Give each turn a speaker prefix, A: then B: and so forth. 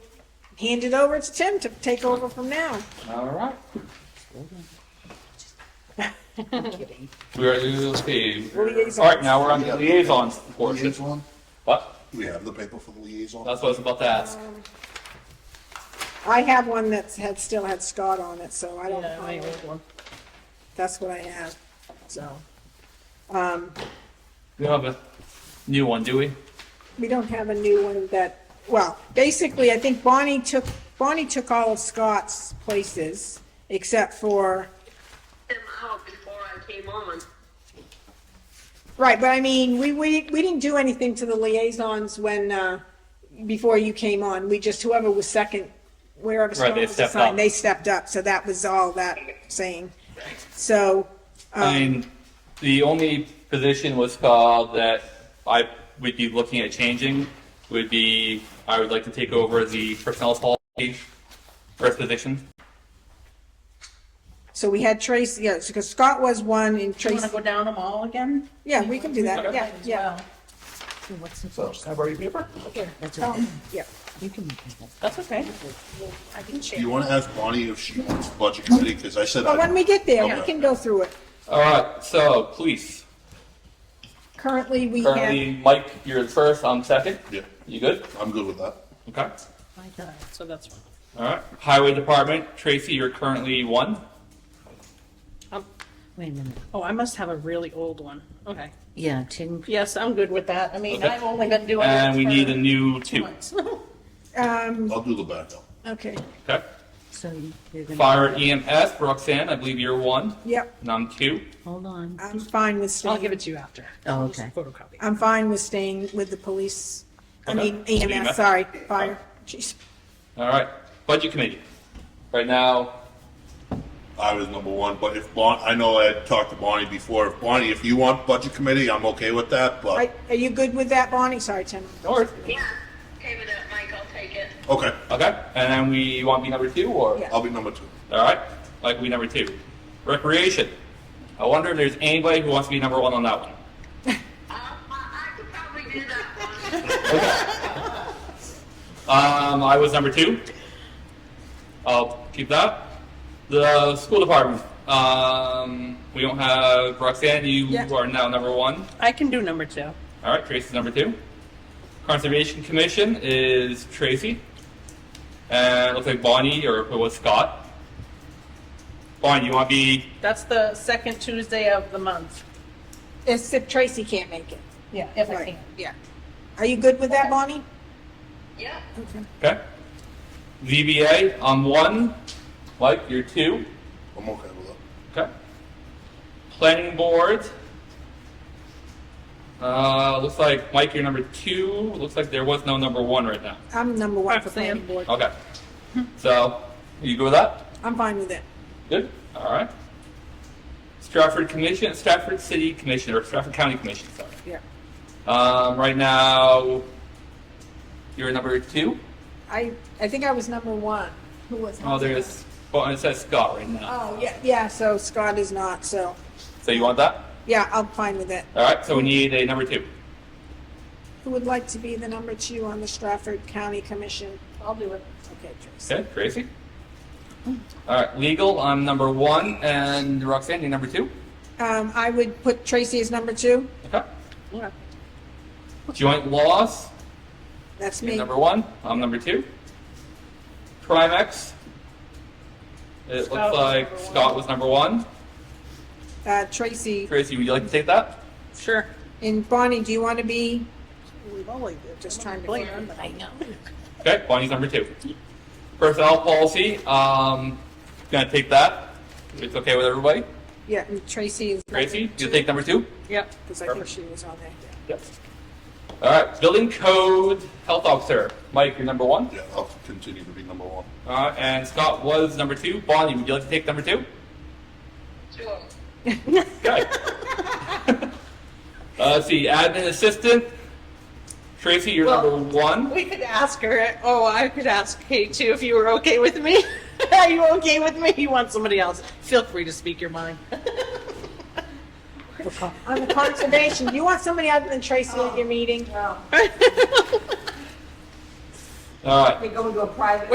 A: hand it over to Tim to take over from now.
B: All right.
A: Kidding.
B: We are losing.
A: Liaisons.
B: All right, now we're on the liaisons portion. Uh,
C: Liaison?
B: What?
C: Do we have the paper for the liaison?
B: That's what I was about to ask.
A: I have one that's had, still had Scott on it, so I don't
D: Yeah, I
A: find it.
D: have one.
A: That's what I have, so.
B: We don't have a new one, do we?
A: We don't have a new one that, well, basically, I think Bonnie took, Bonnie took all of Scott's places except for,
E: them out before I came on.
A: right, but I mean, we, we, we didn't do anything to the liaisons when, uh, before you came on. We just, whoever was second, wherever Scott
B: they
A: was
B: stepped up.
A: assigned, they stepped up, so that was all that saying. So,
B: I mean, the only position was called that I would be looking at changing would be, I would like to take over the personnel policy first position.
A: so we had Tracy, yeah, because Scott was one and
D: Do you want
A: Tracy,
D: to go down them all again?
A: yeah, we can do that,
D: Okay,
A: yeah,
D: as
A: yeah,
D: well.
F: What's the,
B: So, can I borrow your paper?
F: that's okay.
A: yeah.
F: You can look at that.
D: That's okay.
E: I can
C: Do you
E: share.
C: want to ask Bonnie if she wants the budget committee? Because I said.
A: But
C: I-
A: when we get there, we
C: Okay.
A: can go through it.
B: All right, so police.
A: Currently, we have,
B: Currently, Mike, you're the first, I'm second.
C: Yeah,
B: You good?
C: I'm good with that.
B: Okay.
D: My God, so that's one.
B: All right. Highway Department, Tracy, you're currently one.
F: Wait a minute.
D: Oh, I must have a really old one. Okay.
F: Yeah, Tim,
D: Yes, I'm good with that. I mean,
B: Okay.
D: I've only been doing it
B: And we need a
D: for
B: new
D: two
B: two.
D: months.
A: um,
C: I'll do the backup.
A: okay,
B: Okay.
F: so you're gonna,
B: Fire EMS, Roxanne, I believe you're one,
A: yep,
B: and I'm two.
F: hold on.
A: I'm fine with
D: I'll
A: staying,
D: give it to you after.
F: Oh,
D: Just
F: okay.
D: Photocopy.
A: I'm fine with staying with the police, I
B: Okay.
A: mean
B: EMS.
A: EMS, sorry, fire, jeez.
B: All right. Budget Committee. Right now,
C: I was number one, but if Bon, I know I had talked to Bonnie before. If Bonnie, if you want budget committee, I'm okay with that,
A: Are,
C: but,
A: are you good with that, Bonnie? Sorry, Tim.
B: North.
E: Yeah, okay with that, Mike, I'll take it.
C: okay,
B: Okay. And then we you want me number two or?
A: Yeah.
C: I'll be number two.
B: All right. Like we number two. Recreation. I wonder if there's anybody who wants to be number one on that one.
E: Uh, I, I could probably do that one.
B: Um, I was number two. I'll keep that. The school department. Um, we don't have Roxanne. You
A: Yeah.
B: are now number one.
D: I can do number two.
B: All right, Tracy's number two. Conservation Commission is Tracy. And it looks like Bonnie, or it was Scott. Bonnie, you want to be.
D: That's the second Tuesday of the month.
A: It's if Tracy can't make it.
D: Yeah, if I
A: Right,
D: can.
A: yeah. Are you good with that, Bonnie?
E: Yep,
B: Okay. VBA, I'm one. Mike, you're two.
C: I'm okay with that.
B: Okay. Planning board. Uh, looks like Mike, you're number two. Looks like there was no number one right now.
A: I'm number one for
D: Alright, Sam.
A: planning board.
B: Okay. So, you go with that?
A: I'm fine with it.
B: Good. All right. Stratford Commission, Stratford City Commission, or Stratford County Commission, sorry.
A: Yeah.
B: Um, right now, you're number two.
A: I, I think I was number one. Who was?
B: Oh, there's, well, it says Scott right now.
A: Oh, yeah, yeah, so Scott is not, so,
B: So you want that?
A: yeah, I'm fine with it.
B: All right. So we need a number two.
A: Who would like to be the number two on the Stratford County Commission?
D: I'll do it.
A: Okay, Tracy.
B: Okay, Tracy. All right, legal. I'm number one, and Roxanne, you're number two.
A: Um, I would put Tracy as number two.
B: Okay.
D: Yeah.
B: Joint laws.
A: That's
B: You're
A: me.
B: number one. I'm number two. Primex. It
D: Scott
B: looks
D: was
B: like
D: number one.
B: Scott was number one.
A: Uh, Tracy,
B: Tracy, would you like to take that?
D: Sure.
A: and Bonnie, do you want to be?
D: We've only
A: Just trying to learn.
D: I know.
B: Okay, Bonnie's number two. Personnel policy. Um, gonna take that. It's okay with everybody.
A: Yeah, and Tracy is. number
B: Tracy,
A: two,
B: you take number two.
D: Yep.
A: Because I think
B: Perfect.
A: she was on there.
B: Yep. All right, building code health officer. Mike, you're number one.
C: Yeah, I'll continue to be number one.
B: Uh, and Scott was number two. Bonnie, would you like to take number two?
E: sure.
B: Okay. uh, let's see, admin assistant. Tracy, you're
D: Well-
B: number one.
D: We could ask her, oh, I could ask Kate too if you were okay with me. Are you okay with me? You want somebody else? Feel free to speak your mind.
A: On the conservation, you want somebody other than Tracy at your meeting?
B: All right.
G: They go into a private